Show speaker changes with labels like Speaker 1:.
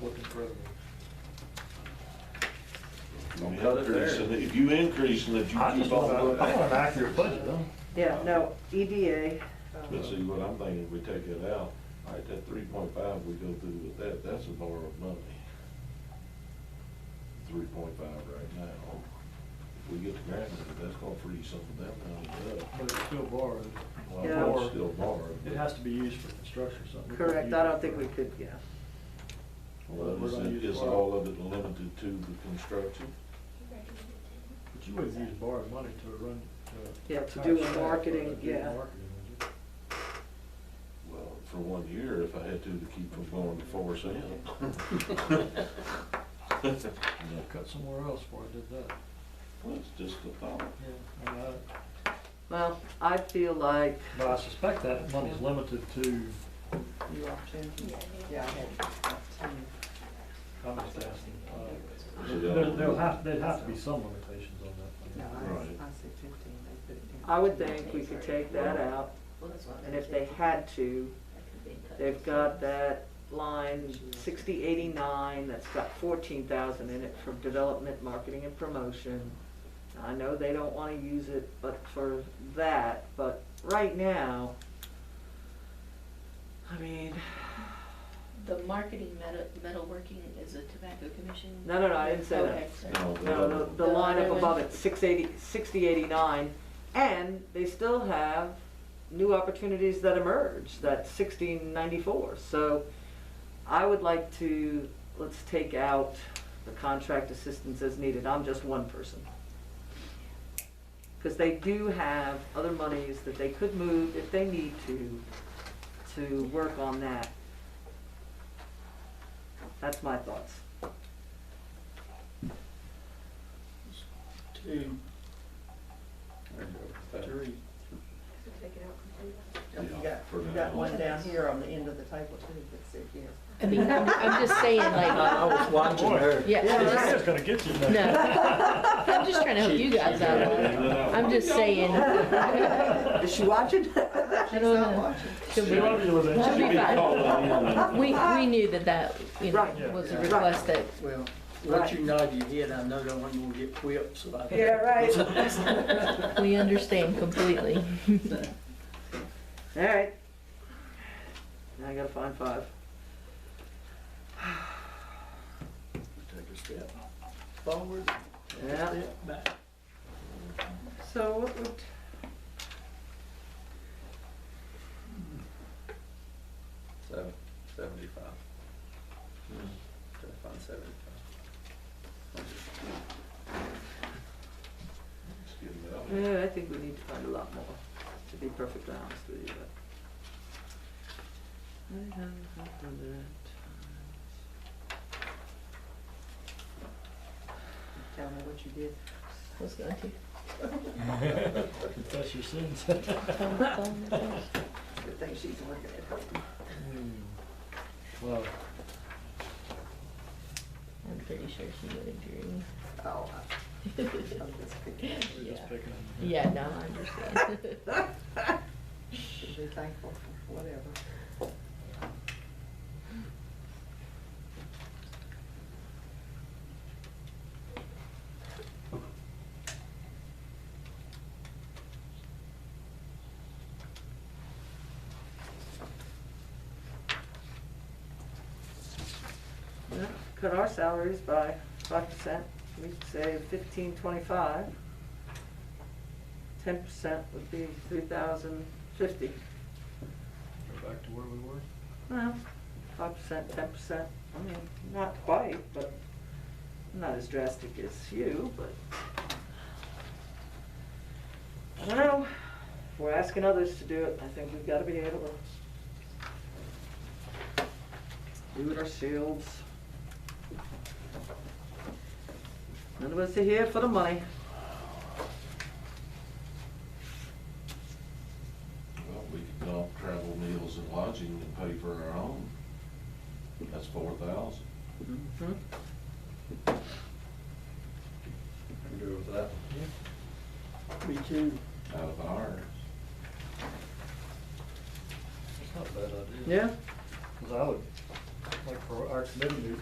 Speaker 1: revenue.
Speaker 2: Don't
Speaker 3: Yeah, they're there.
Speaker 2: increase it. If you increasing it,
Speaker 3: I
Speaker 2: you
Speaker 3: just
Speaker 2: keep on.
Speaker 3: want-
Speaker 2: going
Speaker 3: I
Speaker 2: up.
Speaker 3: want an accurate budget, though.
Speaker 4: Yeah, no, E EDA,
Speaker 2: But see, what I'm thinking, if we take that out, all right, that three point five we go through with that, that's a bar of money. Three point five right now. If we get the grant, money, that's gonna free some of that money up.
Speaker 1: But it's still borrowed.
Speaker 2: Well, I
Speaker 4: Yeah.
Speaker 2: know it's still borrowed.
Speaker 3: It has to be used for construction or something. We can't
Speaker 4: correct,
Speaker 3: use
Speaker 4: I
Speaker 3: it
Speaker 4: don't think
Speaker 3: for-
Speaker 4: we could, yeah.
Speaker 2: Well,
Speaker 3: We're
Speaker 2: is
Speaker 3: gonna
Speaker 2: it,
Speaker 3: use
Speaker 2: is
Speaker 3: borrow-
Speaker 2: all of it limited to the construction?
Speaker 3: But you wouldn't use borrowed money to run, to.
Speaker 4: Yeah, to
Speaker 3: hire
Speaker 4: do
Speaker 3: staff or to
Speaker 4: marketing,
Speaker 3: do
Speaker 4: yeah.
Speaker 3: marketing, would you?
Speaker 2: Well, for one year, if I had to, to keep from going to four cent.
Speaker 3: You'd have to cut somewhere else before I did that.
Speaker 2: Well, it's just a thought.
Speaker 3: Yeah. And I-
Speaker 4: Well, I feel like.
Speaker 3: But I suspect that money's limited to,
Speaker 5: You are too? Yeah, I had two.
Speaker 3: how much they asked, uh,
Speaker 2: So
Speaker 3: there-
Speaker 2: that-
Speaker 3: there'll have, there'd have to be some limitations on that.
Speaker 5: No, I,
Speaker 2: Right.
Speaker 5: I said fifteen, they put it down.
Speaker 4: I would think we could take that out, and if they had to, they've got that line sixty eighty-nine, that's got fourteen thousand in it for development, marketing, and promotion. I know they don't wanna use it, but for that, but right now, I mean,
Speaker 6: The marketing meta- metalworking is a tobacco commission?
Speaker 4: No, no, no, I didn't say that.
Speaker 6: Okay, sorry.
Speaker 2: No, the
Speaker 4: no,
Speaker 2: other
Speaker 4: the, the
Speaker 2: one.
Speaker 4: line up above it, six eighty, sixty eighty-nine, and they still have new opportunities that emerge, that's sixteen ninety-four, so I would like to, let's take out the contract assistance as needed, I'm just one person. Because they do have other monies that they could move if they need to, to work on that. That's my thoughts.
Speaker 1: Two,
Speaker 2: There you go.
Speaker 1: three.
Speaker 5: Oh, You
Speaker 2: Yeah,
Speaker 5: got,
Speaker 2: for
Speaker 5: you
Speaker 2: now.
Speaker 5: got one down here on the end of the table too, that's it here.
Speaker 7: I mean, I'm, I'm just saying, like,
Speaker 1: I was watching her.
Speaker 7: yeah, I'm
Speaker 3: It's
Speaker 7: just,
Speaker 3: just gonna get you there.
Speaker 7: no. I'm just trying to help you guys out. I'm just saying,
Speaker 4: Is she watching?
Speaker 7: I
Speaker 5: She's
Speaker 7: don't
Speaker 5: not
Speaker 7: know.
Speaker 5: watching.
Speaker 7: she'll
Speaker 3: She
Speaker 7: be-
Speaker 3: might be with it.
Speaker 7: She'll be fine. we,
Speaker 2: fine.
Speaker 7: we knew that that, you
Speaker 4: Right.
Speaker 7: know, was a request that,
Speaker 1: Well, once you nod your head, I know that I'm gonna get whipped, so I.
Speaker 5: Yeah, right.
Speaker 7: we understand completely.
Speaker 4: All right. Now I gotta find five.
Speaker 1: Take a step forward, take a
Speaker 4: Yeah.
Speaker 1: step back.
Speaker 4: So what would?
Speaker 1: Seven, seventy-five. Gotta find seventy-five.
Speaker 4: Yeah, I think we need to find a lot more, to be perfectly honest with you, but.
Speaker 5: Tell me what you did.
Speaker 7: I was going to.
Speaker 3: Confess your sins.
Speaker 7: Phone, phone, phone.
Speaker 5: Good thing she's looking at her.
Speaker 3: Hmm. Well,
Speaker 7: I'm pretty sure she would agree.
Speaker 5: Oh, I- I'm just picking. up.
Speaker 3: we're just
Speaker 7: Yeah.
Speaker 3: picking.
Speaker 7: Yeah, no, I understand.
Speaker 5: Should be thankful for whatever.
Speaker 4: Yeah, Cut our salaries by five percent, we could say fifteen twenty-five. Ten percent would be three thousand fifty.
Speaker 3: Go back to where we were.
Speaker 4: Well, five percent, ten percent, I mean, not quite, but not as drastic as you, but. I don't know, if we're asking others to do it, I think we've gotta be able to do it ourselves. None of us are here for the money.
Speaker 2: Well, we could dump travel, meals and lodging and pay for our own. That's four thousand.
Speaker 4: Mhm.
Speaker 1: I'm good with that.
Speaker 5: Me too.
Speaker 2: out of ours.
Speaker 3: It's not a bad idea.
Speaker 4: Yeah?
Speaker 3: Cause I would, like for our committee meeting,